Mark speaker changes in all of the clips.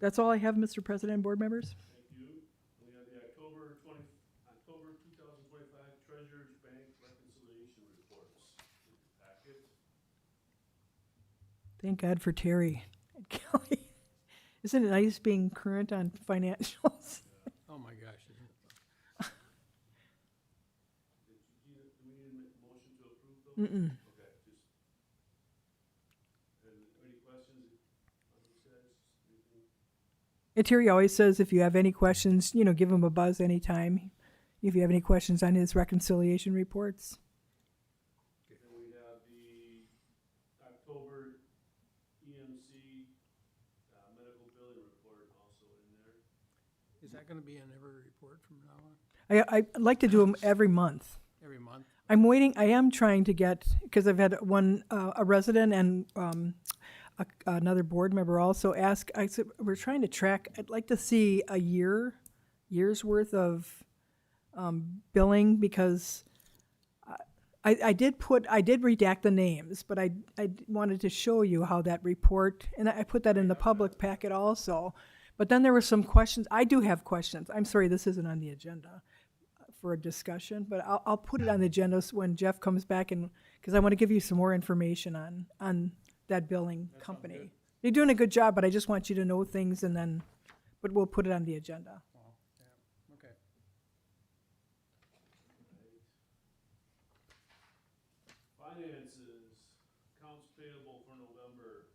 Speaker 1: That's all I have, Mr. President and board members.
Speaker 2: Thank you. We have the October twenty, October two thousand twenty-five Treasurers Bank Reconciliation Reports in the packet.
Speaker 1: Thank God for Terry and Kelly. Isn't it nice being current on financials?
Speaker 3: Oh, my gosh. isn't it?
Speaker 2: Did you, do you- do we need to make a motion to approve those?
Speaker 1: Mm-mm.
Speaker 2: Okay, just. And any questions on these guys? Anything?
Speaker 1: And Terry always says if you have any questions, you know, give him a buzz anytime. If you have any questions on his reconciliation reports.
Speaker 2: Then we have the October EMC, uh, medical billing report also in there.
Speaker 3: Is that gonna be in every report from now on,
Speaker 1: I, I like to do them every month.
Speaker 3: every month?
Speaker 1: I'm waiting, I am trying to get, because I've had one, uh, a resident and, um, a- another board member also ask, I said, we're trying to track, I'd like to see a year, year's worth of, um, billing, because I, I did put, I did redact the names, but I, I wanted to show you how that report, and I I put that in the public packet also. But then there were some questions, I do have questions, I'm sorry, this isn't on the agenda for a discussion, but I'll, I'll put it on the agenda s- when Jeff comes back and, because I want to give you some more information on, on that billing company. You're doing a good job, but I just want you to know things and then, but we'll put it on the agenda.
Speaker 3: Wow, Oh, yeah, okay.
Speaker 2: Finances, accounts payable for November,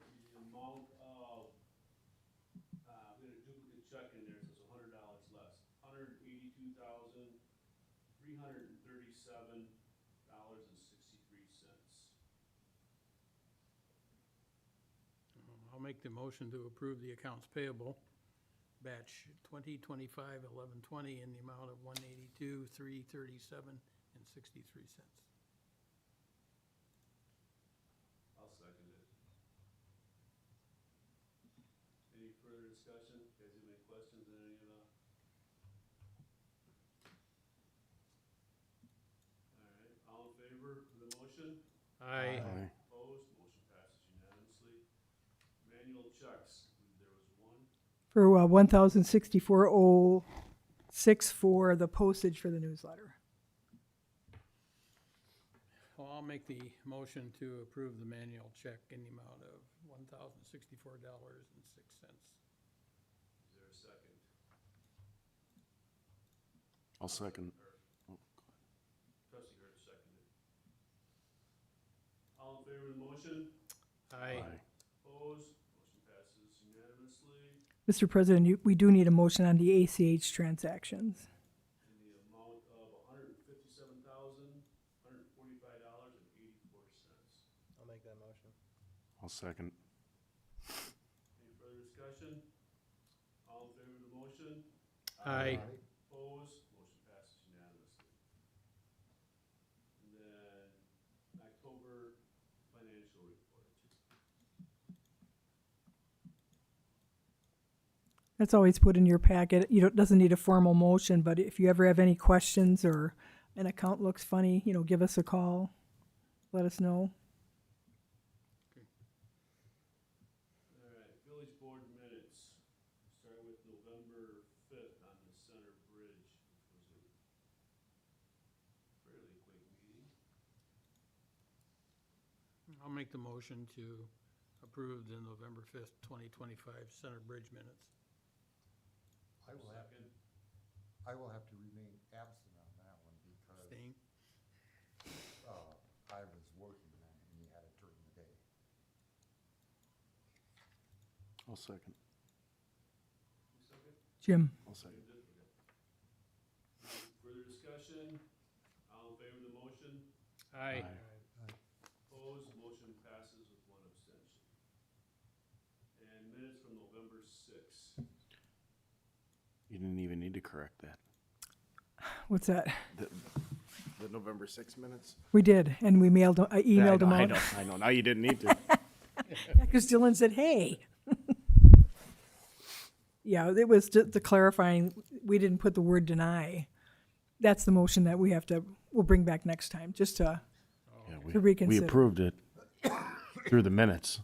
Speaker 2: the amount of, uh, we had a duplicate check in there, so it's a hundred dollars less. Hundred eighty-two thousand, three hundred and thirty-seven dollars and sixty-three cents.
Speaker 3: Um, I'll make the motion to approve the accounts payable, batch twenty twenty-five eleven twenty in the amount of one eighty-two, three thirty-seven and sixty-three cents.
Speaker 2: I'll second it. Any further discussion? Guys, have any questions on any of that? All right, all in favor of the motion?
Speaker 3: Aye.
Speaker 2: Opposed? Motion passes unanimously. Manual checks, there was one.
Speaker 1: For uh, one thousand sixty-four oh six for the postage for the newsletter.
Speaker 3: Well, I'll make the motion to approve the manual check in the amount of one thousand sixty-four dollars and six cents.
Speaker 2: Is there a second?
Speaker 4: I'll second.
Speaker 2: Trustee Hurd seconded. All in favor of the motion?
Speaker 3: Aye.
Speaker 2: Opposed? Motion passes unanimously.
Speaker 1: Mr. President, you- we do need a motion on the ACH transactions.
Speaker 2: in the amount of hundred and fifty-seven thousand, hundred and forty-five dollars and eighty-four cents.
Speaker 5: I'll make that motion.
Speaker 4: I'll second.
Speaker 2: Any further discussion? All in favor of the motion?
Speaker 3: Aye.
Speaker 2: Opposed? Motion passes unanimously. And then October financial report.
Speaker 1: That's always put in your packet. You don't, doesn't need a formal motion, but if you ever have any questions or an account looks funny, you know, give us a call. Let us know.
Speaker 2: All right, village board minutes. Start with November fifth on the Center Bridge, which was a fairly quick meeting.
Speaker 3: I'll make the motion to approve the November fifth, twenty twenty-five Center Bridge minutes.
Speaker 5: I will have,
Speaker 2: Second.
Speaker 5: I will have to remain absent on that one because,
Speaker 3: Staying?
Speaker 5: uh, I was working that and you had it during the day.
Speaker 4: I'll second.
Speaker 2: You second?
Speaker 1: Jim?
Speaker 4: I'll second.
Speaker 2: Further discussion? All in favor of the motion?
Speaker 3: Aye.
Speaker 4: Aye.
Speaker 2: Opposed? Motion passes with one abstention. And minutes from November sixth.
Speaker 4: You didn't even need to correct that.
Speaker 1: What's that?
Speaker 4: The, the November six minutes?
Speaker 1: We did, and we mailed, I
Speaker 4: Yeah, I
Speaker 1: emailed
Speaker 4: know,
Speaker 1: them
Speaker 4: I
Speaker 1: out.
Speaker 4: know, I know. Now you didn't need to.
Speaker 1: Because Dylan said, hey. Yeah, it was ju- the clarifying, we didn't put the word deny. That's the motion that we have to, we'll bring back next time, just to,
Speaker 4: Yeah, we-
Speaker 1: To reconsider.
Speaker 4: We approved it through the minutes.